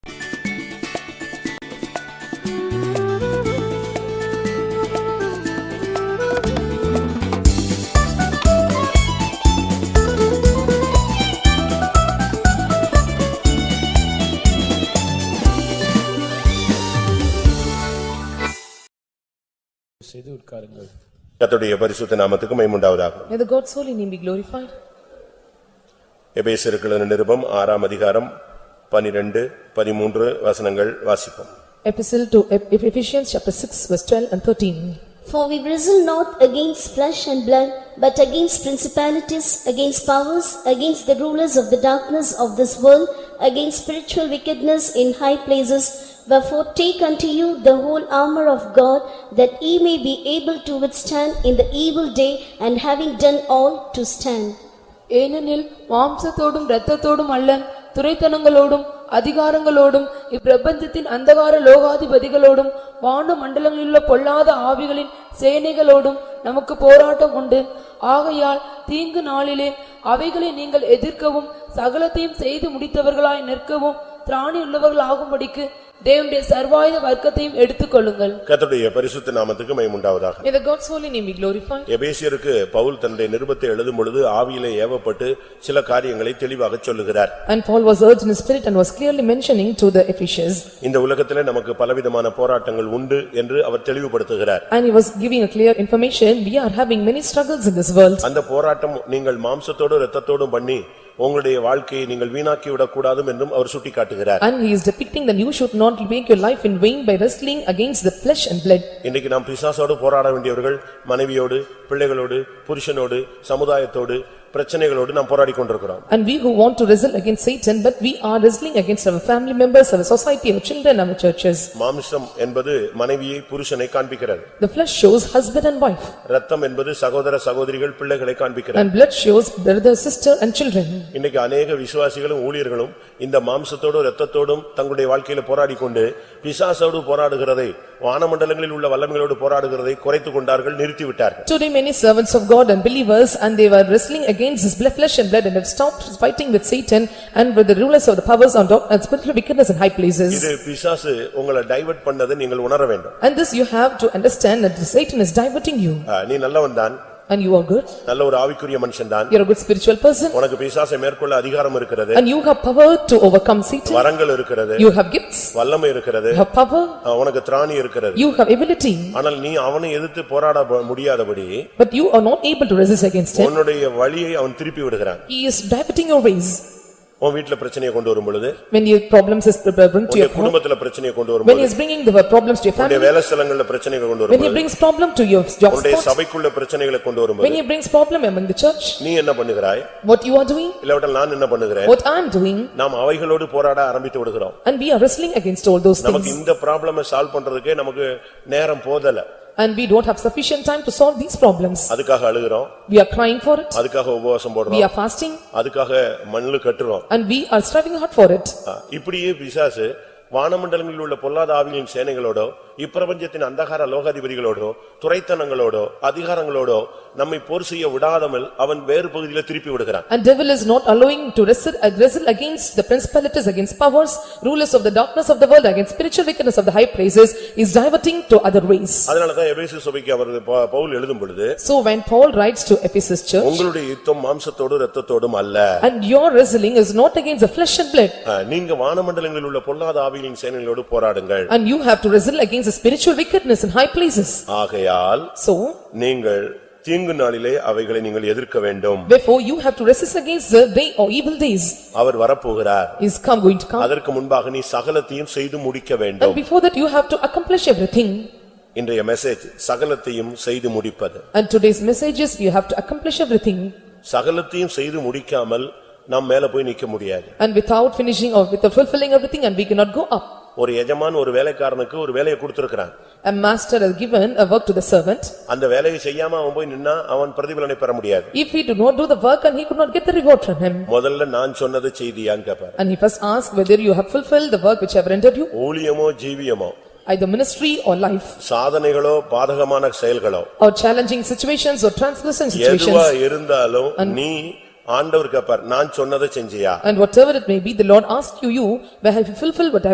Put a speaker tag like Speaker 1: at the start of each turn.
Speaker 1: செய்து உட்காருங்கள்
Speaker 2: கர்த்தருடைய பரிசுத்த நாமத்துக்கு மைமுண்டாவதாக
Speaker 3: May the God's holy name be glorified.
Speaker 2: எபேசிருக்கிற நிருபம் ஆறாம் அதிகாரம் பனிரெண்டு பதிமூன்று வசனங்கள் வாசிப்போம்
Speaker 3: Epistle to Eph- Ephesians chapter 6 verse 12 and 13.
Speaker 4: For we wrestle not against flesh and blood, but against principalities, against powers, against the rulers of the darkness of this world, against spiritual wickedness in high places. Wherefore take unto you the whole armor of God, that ye may be able to withstand in the evil day, and having done all, to stand.
Speaker 5: ஏனெனில் மாம்சத்தோடும் இரத்தத்தோடும் அல்ல துரைத்தனங்களோடும் அதிகாரங்களோடும் இப்பிரபஞ்சத்தின் அந்தகார லோகாதிபதிகளோடும் வான மண்டலங்களிலுள்ள பொல்லாத ஆவிகளின் சேனைகளோடும் நமக்கு போராட்டம் உண்டு ஆகையால் தீங்கு நாளிலே அவைகளை நீங்கள் எதிர்க்கவும் சகலத்தையும் செய்து முடித்தவர்களாய் நிற்கவும் திராணி உள்ளவர்களாகும்படிக்கு தேவனுடைய சர்வாயுத வர்க்கத்தையும் எடுத்துக்கொள்ளுங்கள்
Speaker 2: கர்த்தருடைய பரிசுத்த நாமத்துக்கு மைமுண்டாவதாக
Speaker 3: May the God's holy name be glorified.
Speaker 2: எபேசியருக்கு Pavul தன்னுடைய நிருபத்தை எழுதும் பொழுது ஆவியிலே ஏவப்பட்டு சில காரியங்களை தெளிவாக சொல்லுகிறார்
Speaker 3: And Paul was urged in spirit and was clearly mentioning to the Ephesians.
Speaker 2: இந்த உலகத்திலே நமக்கு பலவிதமான போராட்டங்கள் உண்டு என்று அவர் தெளிவுபடுத்துகிறார்
Speaker 3: And he was giving a clear information, we are having many struggles in this world.
Speaker 2: அந்த போராட்டம் நீங்கள் மாம்சத்தோடும் இரத்தத்தோடும் பண்ணி உங்களுடைய வாழ்க்கையை நீங்கள் வீணாக்கி விடக்கூடாதும் என்றும் அவர் சுட்டிக்காட்டுகிறார்
Speaker 3: And he is depicting that you should not make your life in vain by wrestling against the flesh and blood.
Speaker 2: இன்னைக்கு நாம் பிசாசோடு போராட வேண்டியவர்கள் மனைவியோடு பிள்ளைகளோடு புருஷனோடு சமுதாயத்தோடு பிரச்சனைகளோடு நாம் போராடி கொண்டிருக்கிறோம்
Speaker 3: And we who want to wrestle against Satan, but we are wrestling against our family members, our society, our children, our churches.
Speaker 2: மாம்சம் என்பது மனைவியை புருஷனை காண்பிக்கிறது
Speaker 3: The flesh shows husband and wife,
Speaker 2: ரத்தம் என்பது சகோதர சகோதரிகள் பிள்ளைகளை காண்பிக்கிறது
Speaker 3: and blood shows brother, sister and children.
Speaker 2: இன்னைக்கு அநேக விசுவாசிகளும் ஊழியர்களும் இந்த மாம்சத்தோடும் ரத்தத்தோடும் தங்களுடைய வாழ்க்கையில போராடி கொண்டு பிசாசோடு போராடுகிறதை வானமண்டலங்களில் உள்ள வல்லமைகளோடு போராடுகிறதை குறைத்துக் கொண்டார்கள் நிறுத்திவிட்டார்கள்
Speaker 3: Today many servants of God and believers, and they were wrestling against this ble- flesh and blood and have stopped fighting with Satan and with the rulers of the powers on top and spiritual wickedness in high places.
Speaker 2: இது பிசாசு உங்களை divert பண்ணதை நீங்கள் உணர வேண்டும்
Speaker 3: And this you have to understand that Satan is diverting you,
Speaker 2: ஆ, நீ நல்லவன் தான்
Speaker 3: and you are good,
Speaker 2: நல்ல ஒரு ஆவிக்குரிய மனுஷன் தான்
Speaker 3: you are a good spiritual person,
Speaker 2: உனக்கு பிசாசை மேற்கொள்ள அதிகாரம் இருக்கிறது
Speaker 3: and you have power to overcome Satan,
Speaker 2: வரங்கள் இருக்கிறது
Speaker 3: you have gifts,
Speaker 2: வல்லமை இருக்கிறது
Speaker 3: you have power,
Speaker 2: ஆ, உனக்கு திராணி இருக்கிறது
Speaker 3: You have ability,
Speaker 2: ஆனால் நீ அவனை எதிர்த்து போராட ப- முடியாதபடி
Speaker 3: but you are not able to resist against him.
Speaker 2: உன்னுடைய வழியை அவன் திருப்பி விடுகிறான்
Speaker 3: He is diverting your ways.
Speaker 2: உன் வீட்டுல பிரச்சனையை கொண்டு வரும் பொழுது
Speaker 3: When your problems is bring to your
Speaker 2: உன்னுடைய
Speaker 3: home,
Speaker 2: குடும்பத்துல பிரச்சனையை கொண்டு
Speaker 3: when he
Speaker 2: வரும்போது
Speaker 3: is bringing the problems to your
Speaker 2: உன்னுடைய
Speaker 3: family,
Speaker 2: வேலை ஸ்தலங்கள்ல பிரச்சனைகளை கொண்டு
Speaker 3: when he
Speaker 2: வரும்போது
Speaker 3: brings problem to your job
Speaker 2: உன்னுடைய
Speaker 3: spot,
Speaker 2: சபைக்குள்ள பிரச்சனைகளை கொண்டு
Speaker 3: when
Speaker 2: வரும்போது
Speaker 3: he brings problem among the church,
Speaker 2: நீ என்ன பண்ணுகிறாய்
Speaker 3: what you are doing,
Speaker 2: இல்லாவிட்டால் நான் என்ன பண்ணுகிறேன்
Speaker 3: what I am doing,
Speaker 2: நாம் அவைகளோடு போராட ஆரம்பித்து விடுகிறோம்
Speaker 3: and we are wrestling against all those
Speaker 2: நமக்கு
Speaker 3: things.
Speaker 2: இந்த ப்ராப்ளம சால்வ் பண்றதுக்கே நமக்கு நேரம் போதல
Speaker 3: And we don't have sufficient time to solve these problems.
Speaker 2: அதுக்காக அழுகிறோம்
Speaker 3: We are crying for it,
Speaker 2: அதுக்காக உபவாசம்
Speaker 3: we
Speaker 2: போடுறோம்
Speaker 3: are fasting,
Speaker 2: அதுக்காக மண்ணு கட்டுறோம்
Speaker 3: and we are striving hard for it.
Speaker 2: ஆ, இப்படியே பிசாசு வானமண்டலங்களில் உள்ள பொல்லாத ஆவிகளின் சேனைகளோடோ இப்பிரபஞ்சத்தின் அந்தகார லோகாதிபதிகளோடோ துரைத்தனங்களோடோ அதிகாரங்களோடோ நம்மை போர் செய்ய விடாதமல் அவன் வேறு பகுதியில திருப்பி விடுகிறான்
Speaker 3: And devil is not allowing to wrestle uh, wrestle against the principalities, against powers, rulers of the darkness of the world, against spiritual wickedness of the high places, is diverting to other ways.
Speaker 2: அதனாலதான் எபேசு சபைக்கு அவர் ப- பவுல் எழுதும் பொழுது
Speaker 3: So when Paul writes to Ephesus church,
Speaker 2: உங்களுடைய யுத்தம் மாம்சத்தோடு இரத்தத்தோடும் அல்ல
Speaker 3: and your wrestling is not against the flesh and blood,
Speaker 2: அஹ், நீங்க வானமண்டலங்களில் உள்ள பொல்லாத ஆவிகளின் சேனைகளோடு போராடுங்கள்
Speaker 3: and you have to wrestle against the spiritual wickedness in high places.
Speaker 2: ஆகையால்
Speaker 3: So
Speaker 2: நீங்கள் தீங்கு நாளிலே அவைகளை நீங்கள் எதிர்க்க வேண்டும்
Speaker 3: therefore you have to resist against the day or evil days,
Speaker 2: அவர் வரப்போகிறார்
Speaker 3: is come going to come.
Speaker 2: அதற்கு முன்பாக நீ சகலத்தையும் செய்து முடிக்க
Speaker 3: And
Speaker 2: வேண்டும்
Speaker 3: before that you have to accomplish everything.
Speaker 2: இன்றைய மெசேஜ் சகலத்தையும் செய்து முடிப்பது
Speaker 3: And today's message is you have to accomplish everything.
Speaker 2: சகலத்தையும் செய்து முடிக்காமல் நாம் மேல போய் நிக்க முடியாது
Speaker 3: And without finishing or without fulfilling everything and we cannot go up.
Speaker 2: ஒரு எஜமான் ஒரு வேலைக்காரனுக்கு ஒரு வேலையை கொடுத்திருக்கிறான்
Speaker 3: A master has given a work to the servant.
Speaker 2: அந்த வேலையை செய்யாம அவன் போய் நின்னா அவன் பிரதிபலனை பெற முடியாது
Speaker 3: If he did not do the work and he could not get the reward from him.
Speaker 2: முதல்ல நான் சொன்னது செய்தியான்னு கேட்பாரு
Speaker 3: And he first asked whether you have fulfilled the work which I have rendered you,
Speaker 2: ஊழியமோ ஜீவியமோ
Speaker 3: either ministry or life,
Speaker 2: சாதனைகளோ பாதகமான செயல்களோ
Speaker 3: or challenging situations or transgressing
Speaker 2: எதுவா
Speaker 3: situations.
Speaker 2: இருந்தாலும் நீ ஆண்டவர் கேட்பார் நான் சொன்னதை செஞ்சியா
Speaker 3: And whatever it may be, the Lord asked you, you, where have you fulfilled what I